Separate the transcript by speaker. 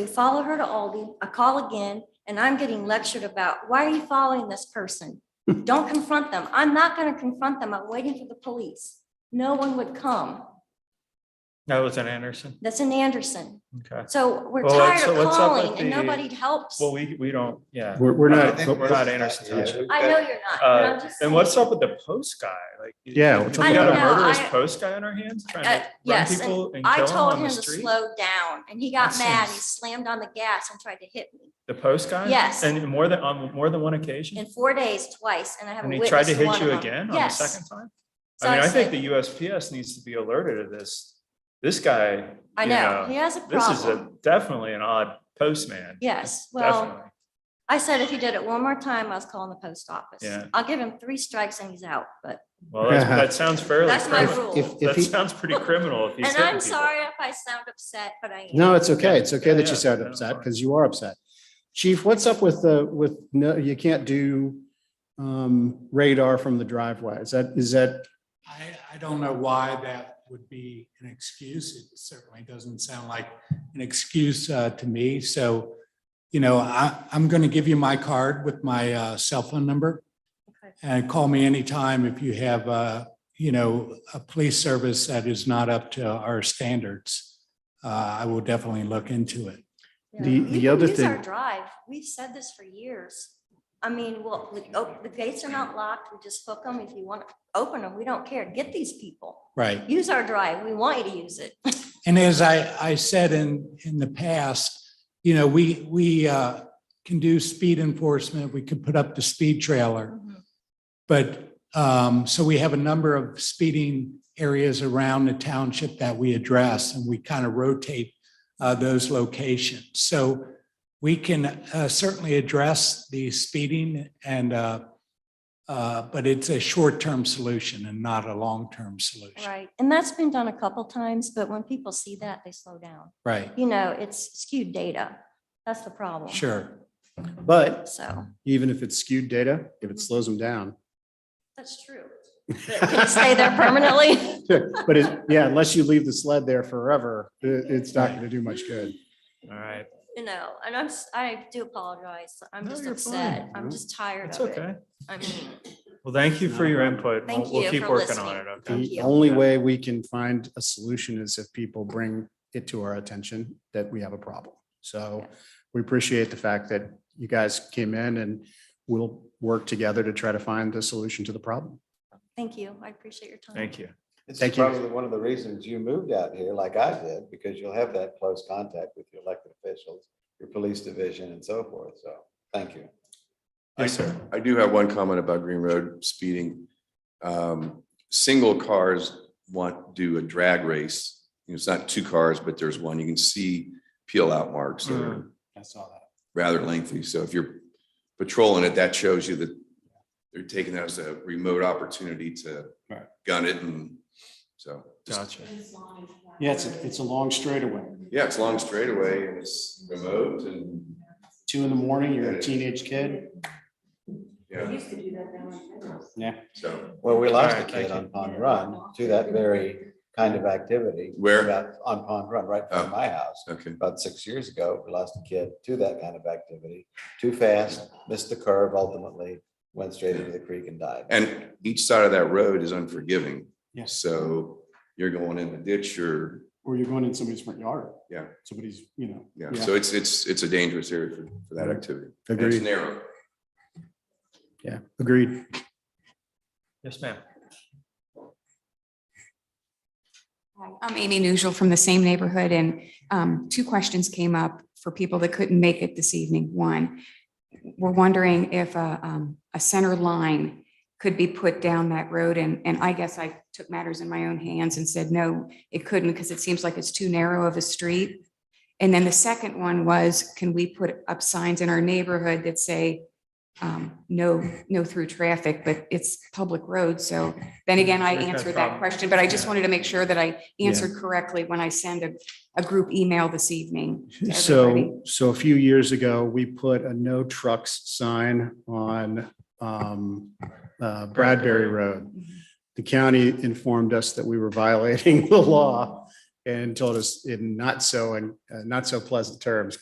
Speaker 1: We follow her to Aldi. I call again and I'm getting lectured about, why are you following this person? Don't confront them. I'm not going to confront them. I'm waiting for the police. No one would come.
Speaker 2: That was in Anderson.
Speaker 1: That's in Anderson.
Speaker 2: Okay.
Speaker 1: So we're
Speaker 2: Well,
Speaker 1: tired
Speaker 2: what's-
Speaker 1: of
Speaker 2: what's up with
Speaker 1: calling and
Speaker 2: the-
Speaker 1: nobody helps.
Speaker 2: Well, we, we don't, yeah.
Speaker 3: We're, we're
Speaker 2: I
Speaker 3: not,
Speaker 2: think we're not Anderson
Speaker 3: Yeah.
Speaker 2: Township.
Speaker 1: I know you're not. but I'm
Speaker 2: Uh,
Speaker 1: just
Speaker 2: And what's
Speaker 1: saying.
Speaker 2: up with the post guy? Like. you-
Speaker 3: Yeah,
Speaker 2: We
Speaker 3: what's up
Speaker 2: got
Speaker 1: with
Speaker 2: a
Speaker 1: that? I don't know,
Speaker 2: murderous
Speaker 1: I-
Speaker 2: post guy on our hands trying
Speaker 1: Uh,
Speaker 2: to run
Speaker 1: yes, and
Speaker 2: people and
Speaker 1: I
Speaker 2: kill them
Speaker 1: told
Speaker 2: on
Speaker 1: him
Speaker 2: the
Speaker 1: to
Speaker 2: street?
Speaker 1: slow down and he got
Speaker 2: That
Speaker 1: mad. He
Speaker 2: seems-
Speaker 1: slammed on the gas and tried to hit me
Speaker 2: The post guy?
Speaker 1: Yes.
Speaker 2: And more than, on more than one
Speaker 1: in
Speaker 2: occasion?
Speaker 1: four days twice and I haven't
Speaker 2: And he tried
Speaker 1: witnessed
Speaker 2: to
Speaker 1: one
Speaker 2: hit
Speaker 1: of
Speaker 2: you
Speaker 1: them.
Speaker 2: again on the
Speaker 1: Yes.
Speaker 2: second time?
Speaker 1: So
Speaker 2: I mean, I think
Speaker 1: said-
Speaker 2: the USPS needs to be alerted to this. This guy,
Speaker 1: I
Speaker 2: you
Speaker 1: know,
Speaker 2: know,
Speaker 1: he has a
Speaker 2: this is a,
Speaker 1: problem.
Speaker 2: definitely an odd postman.
Speaker 1: Yes, well,
Speaker 2: Definitely.
Speaker 1: I said if he did it one more time, I was calling the post office.
Speaker 2: Yeah.
Speaker 1: I'll give him three strikes and he's out, but,
Speaker 2: Well, that's- that sounds fairly.
Speaker 1: That's my
Speaker 2: criminal.
Speaker 1: rule.
Speaker 3: If, if
Speaker 2: That
Speaker 3: he,
Speaker 2: sounds pretty criminal if he's
Speaker 1: and
Speaker 2: hitting
Speaker 1: I'm
Speaker 2: people.
Speaker 1: sorry if I sound upset, but I. am.
Speaker 3: no, it's okay. It's okay that
Speaker 2: Yeah,
Speaker 3: you sound
Speaker 2: yeah,
Speaker 3: upset
Speaker 2: fine.
Speaker 3: because you are upset. Chief, what's up with the, with, no, you can't do um, radar from the driveway? Is that, is that,
Speaker 4: I, I don't know why that would be an excuse. It certainly doesn't sound like an excuse uh, to me. So, you know, I, I'm going to give you my card with my uh, cell phone number.
Speaker 1: Okay.
Speaker 4: And call me anytime if you have, uh, you know, a police service that is not up to our standards. Uh, I will definitely look into it.
Speaker 1: Yeah.
Speaker 3: The-
Speaker 1: We
Speaker 3: the
Speaker 1: can
Speaker 3: other
Speaker 1: use Our
Speaker 3: thing-
Speaker 1: drive, we've said this for years. I mean, well, we, oh, the gates are not locked, we just hook them, if you want to open them, we don't care, get these people.
Speaker 4: Right.
Speaker 1: Use our drive, we want you to use it.
Speaker 4: And as I, I said in, in the past, you know, we, we uh, can do speed enforcement. We could put up the speed trailer. But, um, so we have a number of speeding areas around the township that we address and we kind of rotate, uh, those locations. So we can, uh, certainly address the speeding and, uh, uh, but it's a short-term solution and not a long-term solution.
Speaker 1: Right, and that's been done a couple times, but when people see that, they slow down.
Speaker 4: Right,
Speaker 1: You know, it's skewed data, that's the problem.
Speaker 4: sure.
Speaker 3: but
Speaker 1: So,
Speaker 3: even if it's skewed data, if it slows them down.
Speaker 1: that's true. Can it stay there permanently?
Speaker 3: But it, yeah, unless you leave the sled there forever, i- it's not going to do much good.
Speaker 2: All right,
Speaker 1: You know, and I'm, s- I do apologize, I'm
Speaker 2: No,
Speaker 1: just
Speaker 2: you're
Speaker 1: upset,
Speaker 2: fine.
Speaker 1: I'm just tired
Speaker 2: that's
Speaker 1: of it.
Speaker 2: okay.
Speaker 1: I mean,
Speaker 2: Well, thank you for your input.
Speaker 1: Thank
Speaker 2: We'll, we'll
Speaker 1: you
Speaker 2: keep
Speaker 1: for
Speaker 2: working on it,
Speaker 1: listening.
Speaker 2: okay?
Speaker 1: Thank
Speaker 3: The
Speaker 1: you.
Speaker 3: only
Speaker 2: Yeah.
Speaker 3: way we can find a solution is if people bring it to our attention that we have a problem. So we appreciate the fact that you guys came in and we'll work together to try to find the solution to the problem.
Speaker 1: thank you, I appreciate your time.
Speaker 2: Thank you.
Speaker 5: This is
Speaker 3: Thank you.
Speaker 5: probably one of the reasons you moved out here like I did, because you'll have that close contact with your elected officials, your police division and so forth. So, thank you.
Speaker 2: Yes, sir.
Speaker 6: I do have one comment about Green Road speeding. Um, Single cars want, do a drag race. You know, It's not two cars, but there's one. You can see peel out marks that
Speaker 3: Hmm.
Speaker 6: are
Speaker 4: I saw that.
Speaker 6: rather lengthy. So if you're patrolling it, that shows you that they're taking that as a remote opportunity to
Speaker 3: Right.
Speaker 6: gun it and so. just-
Speaker 2: Gotcha.
Speaker 3: Yeah, it's, it's a long straightaway.
Speaker 6: Yeah, it's long straightaway and it's remote and,
Speaker 3: Two in the morning,
Speaker 6: you're a
Speaker 3: teenage kid.
Speaker 6: yeah,
Speaker 3: Yeah.
Speaker 6: so.
Speaker 5: Well, we lost
Speaker 2: All
Speaker 5: a
Speaker 2: right, thank
Speaker 5: kid
Speaker 2: you.
Speaker 5: on Pond Run to that very kind of activity.
Speaker 6: Where?
Speaker 5: About- On Pond Run, right
Speaker 6: Oh.
Speaker 5: from my house.
Speaker 6: Okay,
Speaker 5: About six years ago, we lost a kid to that kind of activity, too fast, missed the curve ultimately, went straight into the creek and died.
Speaker 6: and each side of that road is unforgiving.
Speaker 3: Yes.
Speaker 6: So you're going in the ditch or,
Speaker 3: Or you're going in somebody's front yard.
Speaker 6: Yeah.
Speaker 3: Somebody's, you know.
Speaker 6: yeah, so it's, it's, it's a dangerous area for, for that activity. And It's
Speaker 3: Agreed.
Speaker 6: narrow.
Speaker 3: Yeah, agreed.
Speaker 2: Yes, ma'am.
Speaker 7: Hi, I'm Amy Nugel from the same neighborhood, and um, two questions came up for people that couldn't make it this evening. One, we're wondering if a, um, a center line could be put down that road, and, and I guess I took matters in my own hands and said, no, it couldn't, because it seems like it's too narrow of a street. And then the second one was, can we put up signs in our neighborhood that say, um, no, no through traffic, but it's public road, so then again, I
Speaker 2: There's no
Speaker 7: answered
Speaker 2: problem.
Speaker 7: that question, but I just
Speaker 2: Yeah.
Speaker 7: wanted to make sure that I
Speaker 3: Yeah.
Speaker 7: answered correctly when I send a, a group email this evening. to everybody.
Speaker 3: So, so a few years ago, we put a no trucks sign on um, uh, Bradbury Road.
Speaker 7: Mm-hmm.
Speaker 3: The county informed us that we were violating the law and told us in uh, not so, and not so pleasant terms,